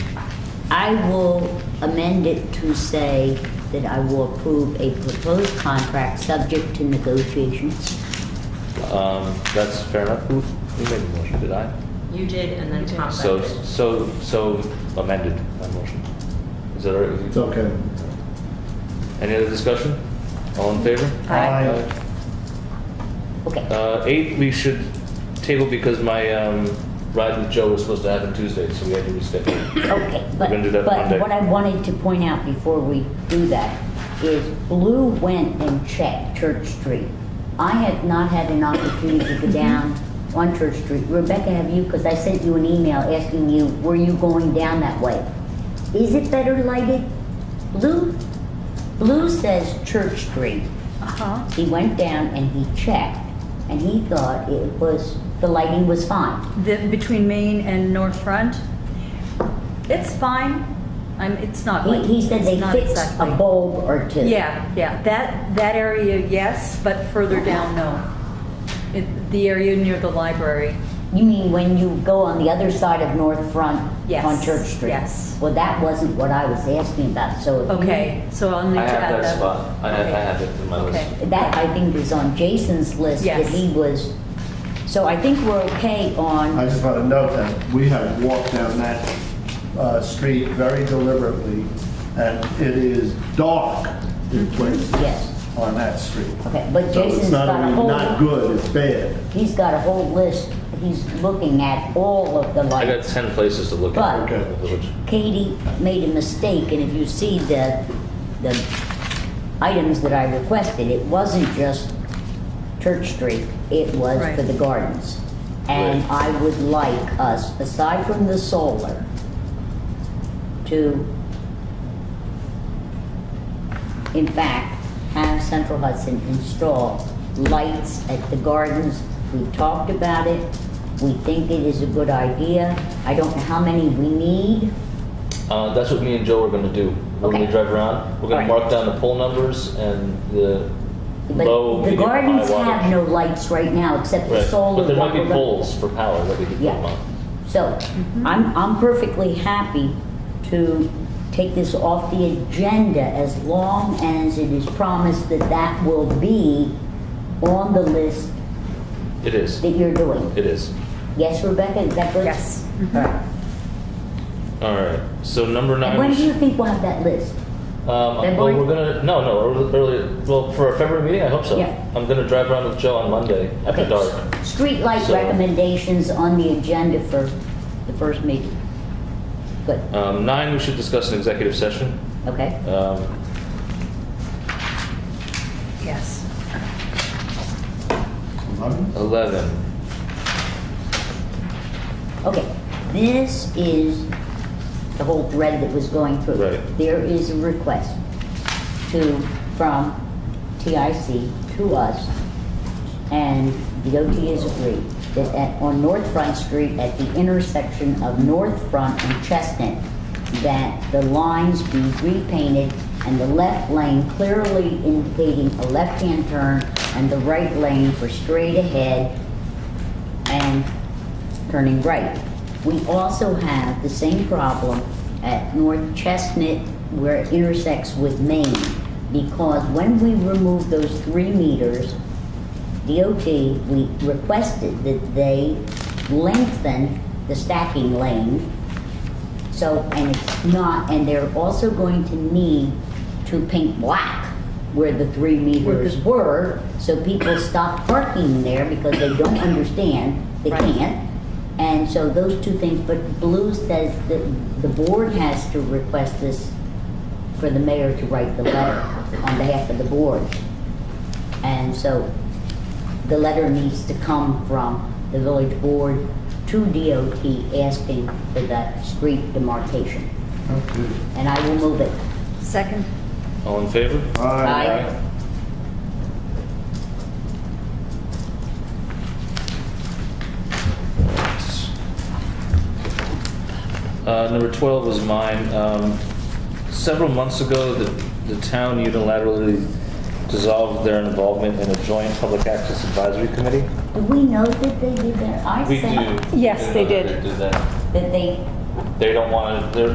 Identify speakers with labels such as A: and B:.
A: I will amend it to say that I will approve a proposed contract subject to negotiations.
B: Um, That's fair enough. Who who made the motion? Did I?
C: You did, and then Tom
B: So,
C: seconded.
B: so, so amended my motion. Is that all right?
D: It's okay.
B: Any other discussion? All in favor?
C: Aye.
A: Okay.
B: Uh, eight, we should table because my, um, ride with Joe was supposed to happen Tuesday, so we had to reschedule.
A: Okay, but,
B: gonna do that Monday.
A: but what I wanted to point out before we do that is Blue went and checked Church Street. I had not had an opportunity to
E: Mm-hmm.
A: go down on Church Street. Rebecca, have you, because I sent you an email asking you, were you going down that way? Is it better lighted? Blue, Blue says Church Street.
E: Uh-huh.
A: He went down and he checked and he thought it was, the lighting was fine.
E: The, between Main and North Front, it's fine. I'm, it's not
A: He,
E: like.
A: he said
E: it's
A: they
E: not
A: fixed a
E: exactly-
A: bulb or two.
E: Yeah, yeah, that, that area, yes, but further down, no. It, the area near the library,
A: You mean when you go on the other side of North Front
E: Yes,
A: on Church Street?
E: yes.
A: Well, that wasn't what I was asking about, so if you-
E: okay, so I'll need
B: I
E: to
B: have
E: add that.
B: that spot. I have, I
E: Okay.
B: have it in my list.
E: Okay.
A: That, I think, is on Jason's list that
E: Yes.
A: he was, so I think we're okay
D: I
A: on,
D: just want to note that we have walked down that uh, street very deliberately, and it is dark in places
A: Yes.
D: on that street.
A: okay, but
D: So it's
A: Jason's
D: not
A: got a
D: only not
A: whole,
D: good, it's bad.
A: he's got a whole list, he's looking at all of the
B: I got
A: lights.
B: ten places to look at
A: But-
B: in the village.
A: Katie made a mistake, and if you see the, the items that I requested, it wasn't just Church Street, it was for
E: Right.
A: the gardens. And
B: Right.
A: I would like us, aside from the solar, to, in fact, have Central Hudson install lights at the gardens. We talked about it, we think it is a good idea. I don't know how many we need.
B: Uh, that's what me and Joe are gonna do. When we
A: Okay.
B: drive around, we're gonna
A: Alright.
B: mark down the pole numbers and the
A: But
B: low,
A: the
B: medium, high wattage.
A: gardens have no lights right now, except the
B: Right,
A: solar.
B: but there might
A: one
B: be
A: we're gonna-
B: poles for power that we could put
A: Yeah.
B: them on.
A: So, I'm, I'm perfectly happy to take this off the agenda as long as it is promised that that will be on the list
B: It is,
A: that you're doing.
B: it is.
A: Yes, Rebecca, is that good?
E: Yes.
A: All right.
B: All right, so number nine.
A: And when
B: was-
A: do you think we'll have that list?
B: Um, well,
A: February?
B: we're gonna no no early. Well, for our February meeting, I hope so.
A: Yeah.
B: I'm gonna drive around with Joe on Monday after
A: Okay.
B: dark.
A: Streetlight
B: So-
A: recommendations on the agenda for the first meeting. Good,
B: Um, nine, we should discuss an executive session.
A: okay?
B: Um,
E: Yes.
B: Eleven.
A: Okay, this is the whole thread that was going through.
B: Right.
A: There is a request to, from TIC to us, and the OT has agreed, that at, on North Front Street, at the intersection of North Front and Chestnut, that the lines be repainted and the left lane clearly indicating a left-hand turn and the right lane for straight ahead and turning right. We also have the same problem at North Chestnut where it intersects with Main because when we remove those three meters, DOT, we requested that they lengthen the stacking lane so, and it's not, and they're also going to need to paint black where the three meters were, so people stop parking there because they don't understand, they
E: Right.
A: can't. And so those two things, but Blue says that the board has to request this for the mayor to write the letter on behalf of the board. And so the letter needs to come from the village board to DOT asking for that street demarcation. And I will move it.
E: Second?
B: All in favor?
A: Aye.
B: Uh, number 12 was mine. Um, several months ago, the, the town unilaterally dissolved their involvement in a joint public access advisory committee.
A: Do we know that they did that? I
B: We
A: said
B: do.
E: Yes,
B: we
E: they
B: know
E: did.
B: They, did that.
A: that they
B: they don't want to,